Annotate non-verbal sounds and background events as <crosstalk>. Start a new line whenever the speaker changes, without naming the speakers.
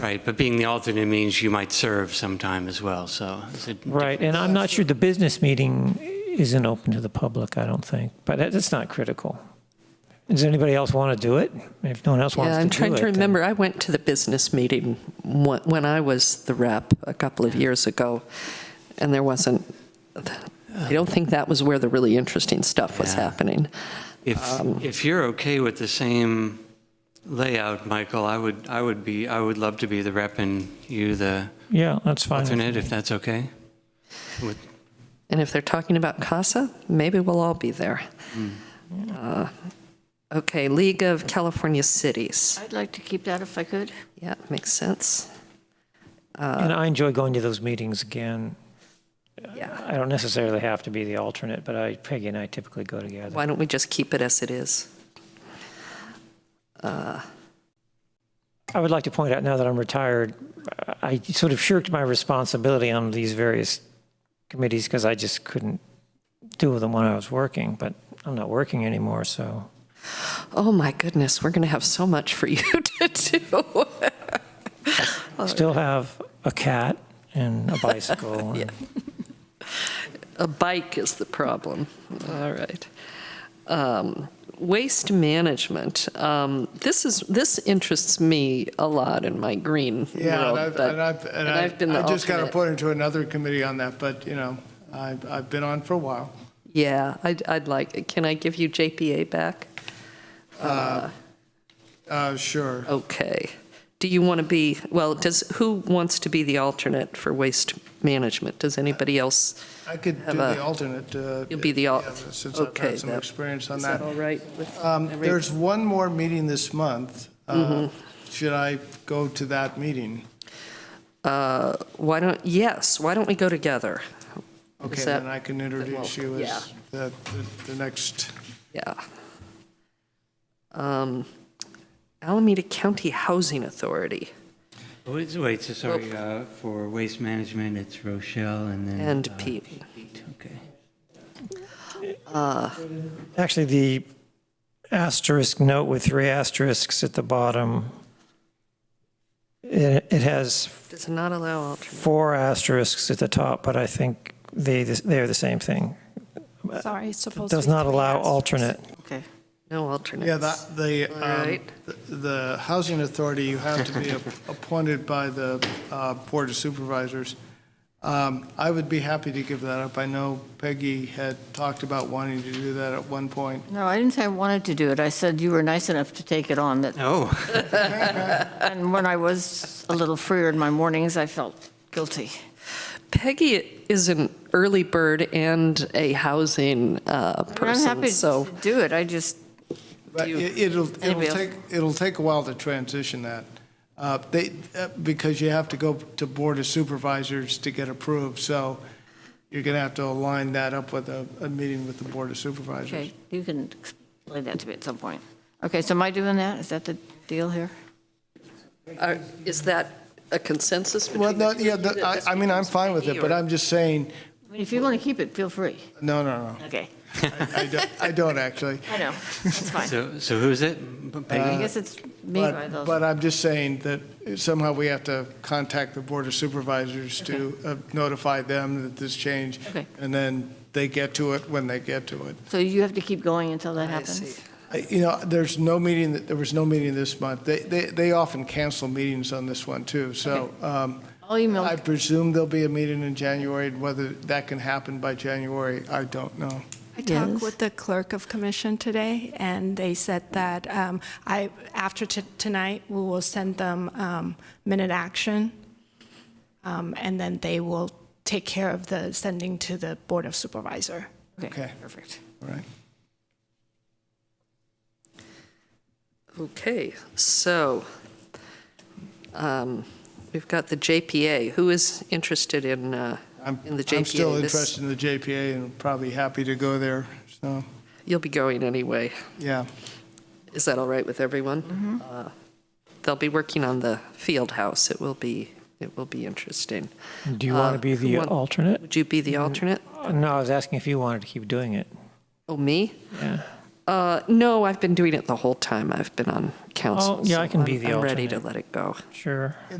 Right, but being the alternate means you might serve sometime as well, so. it's a-
Right, and I'm not sure the business meeting isn't open to the public, I don't think, but that- that's not critical. Does anybody else want to do it? If no one else wants
Yeah,
to do it.
I'm trying to
then-
remember, I went to the business meeting wh- when I was the rep a couple of years ago, and there wasn't, I don't think that was where the really interesting stuff was
Yeah.
happening.
If, if you're okay with the same layout, Michael, I would, I would be, I would love to be the rep and you the
Yeah, that's fine.
alternate, if that's okay? With-
And if they're talking about CASA, maybe we'll all be there.
Hmm.
Uh, Okay, League of California Cities.
I'd like to keep that if I could.
Yeah, makes sense. Uh,
And I enjoy going to those meetings again.
Yeah.
I don't necessarily have to be the alternate, but I, Peggy and I typically go together.
Why don't we just keep it as it is?
I would like to point out now that I'm retired, I sort of shirked my responsibility on these various committees because I just couldn't do them when I was working, but I'm not working anymore, so.
Oh, my goodness, we're going to have so much for you <laughs> to do.
Oh,
Still have a cat and a bicycle.
<laughs>
and-
A bike is the problem. All right. Um, Waste management. Um, This is, this interests me a lot in my green
Yeah,
world,
and I've,
but-
and I've, and I,
I've been the
I just got
alternate.
appointed to another committee on that, but, you know, I've, I've been on for a while.
Yeah, I'd, I'd like, can I give you JPA back?
Uh, sure.
Okay. Do you want to be, well, does, who wants to be the alternate for waste management? Does anybody else?
I could do
Have a-
the alternate. uh,
You'll be the al-
yeah, Since I've
okay,
had some
that-
experience on
Is
that.
that all right with
Um,
every- Mm-hmm.
There's one more meeting this month. Uh, Should I go to that meeting?
Uh, Why don't, yes, why don't we go together?
Okay,
that-
then I can introduce you
yeah.
as the, the- the next,
Yeah. Um, Alameda County Housing Authority
Wait, wait, so sorry, uh, for waste management, it's Rochelle and then.
and E
uh,
Pete.
Pete, Okay.
Actually, the asterisk note with three asterisks at the bottom, it, it has
Does not allow alternate.
four asterisks at the top, but I think they, they're the same thing.
Sorry, it's supposed to
Does
be
not
three
allow
asterisks.
alternate.
Okay.
No alternates.
yeah, that, the,
All
um,
right.
the- the Housing Authority, you have to
<laughs>
be a- appointed by the uh, Board of Supervisors. Um, I would be happy to give that up. I know Peggy had talked about wanting to do that at one point.
No, I didn't say I wanted to do it. I said you were nice enough to take it on that,
Oh,
and when I was a little freer in my mornings, I felt guilty.
Peggy is an early bird and a housing uh,
But I'm
person,
happy to
so
do it. I just,
But
you-
it- It'll, it'll
Anybody else?
take, it'll take a while to transition that. Uh, They, uh, because you have to go to Board of Supervisors to get approved, so you're going to have to align that up with a, a meeting with the Board of Supervisors.
okay, you can explain that to me at some point. Okay, so am I doing that? Is that the deal here?
are- uh, is that a consensus between?
Well, no,
the two
yeah,
of you
the-
that this
I, I mean, I'm
becomes
fine with it,
Peggy,
but
or-
I'm just saying,
I mean, if you want to keep it, feel free.
no, no, no,
Okay,
I don't, I don't actually.
I know, that's
<laughs>
fine.
so, so who's it?
I
Peggy?
guess it's <laughs> me by
uh, But,
those.
but I'm just saying that somehow we have to contact the Board of Supervisors to uh, notify them that this change.
Okay.
And then they get to it when they get to it.
So you have to keep going until that
I see.
happens?
I- You know, there's no meeting, that- there was no meeting this month. They, they, they often cancel meetings on this one, too. So um,
I'll email,
I presume there'll be a meeting in January. Whether that can happen by January, I don't know.
I talked
Yes.
with the clerk of commission today, and they said that um, I, after t- tonight, we will send them um, minute action, um, and then they will take care of the sending to the Board of Supervisor.
okay,
Okay.
perfect.
All right.
Okay, so um, we've got the JPA. Who is interested in, uh,
I'm,
in the JPA?
I'm still
This-
interested in the JPA and probably happy to go there. So,
You'll be going anyway.
yeah.
Is that all right with everyone?
Mm-hmm.
Uh, They'll be working on the field house. It will be, it will be interesting.
Do you
Uh,
want to be
who
the
want-
alternate?
Would you be
Mm-hmm.
the alternate?
No, I was asking if you wanted to keep doing it.
Oh, me?
Yeah.
Uh, No, I've been doing it the whole time I've been on council.
Oh, yeah, I
so
can be
I'm-
the
I'm ready to
alternate.
let it go.
Sure.